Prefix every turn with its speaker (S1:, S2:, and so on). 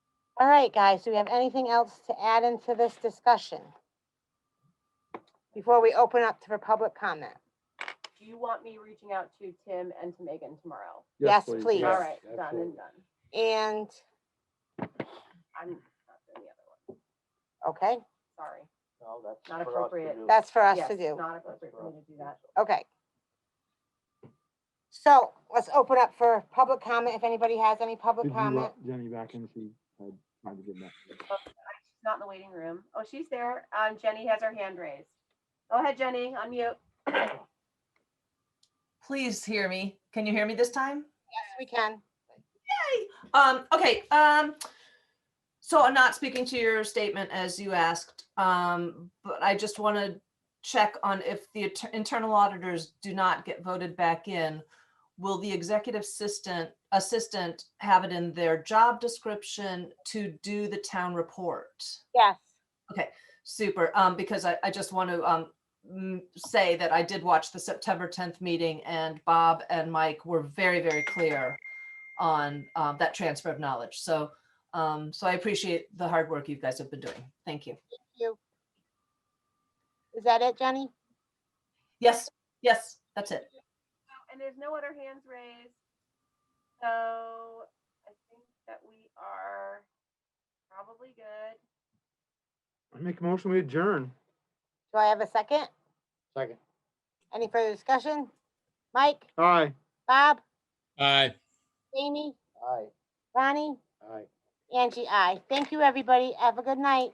S1: All right, guys, do we have anything else to add into this discussion? Before we open up to for public comment?
S2: Do you want me reaching out to Tim and to Megan tomorrow?
S1: Yes, please.
S2: All
S1: Yes,
S2: right, done and done.
S1: And,
S2: I'm not doing the other one,
S1: okay,
S2: sorry.
S3: No, that's
S2: Not
S3: for us to
S2: appropriate.
S3: do.
S1: that's for us
S2: Yes,
S1: to do.
S2: Not appropriate for me to do that.
S1: Okay. So let's open up for public comment. If anybody has any public
S4: Did you uh,
S1: comment,
S4: let Jenny back in? She had time to get back.
S2: She's not in the waiting room. Oh, she's there. Um, Jenny has her hand raised. Go ahead, Jenny, unmute. Oh,
S5: Please hear me. Can you hear me this time?
S1: yes, we can.
S5: Um, okay, um, so I'm not speaking to your statement as you asked, um, but I just want to check on if the atter- internal auditors do not get voted back in, will the executive assistant, assistant have it in their job description to do the town report?
S1: Yes.
S5: Super, um, because I, I just want to, um, m- say that I did watch the September tenth meeting and Bob and Mike were very, very clear on, um, that transfer of knowledge. So, um, so I appreciate the hard work you guys have been doing. Thank you.
S1: Is that it, Jenny?
S5: Yes, yes, that's it.
S2: And there's no other hands raised. So I think that we are probably good.
S4: Make a motion, we adjourn.
S1: Do I have a second?
S3: Second.
S1: Any further discussion? Mike,
S4: Aye.
S1: Bob,
S6: Aye.
S1: Jamie,
S3: Aye,
S1: Ronnie,
S3: aye.
S1: Angie, I. Thank you, everybody. Have a good night.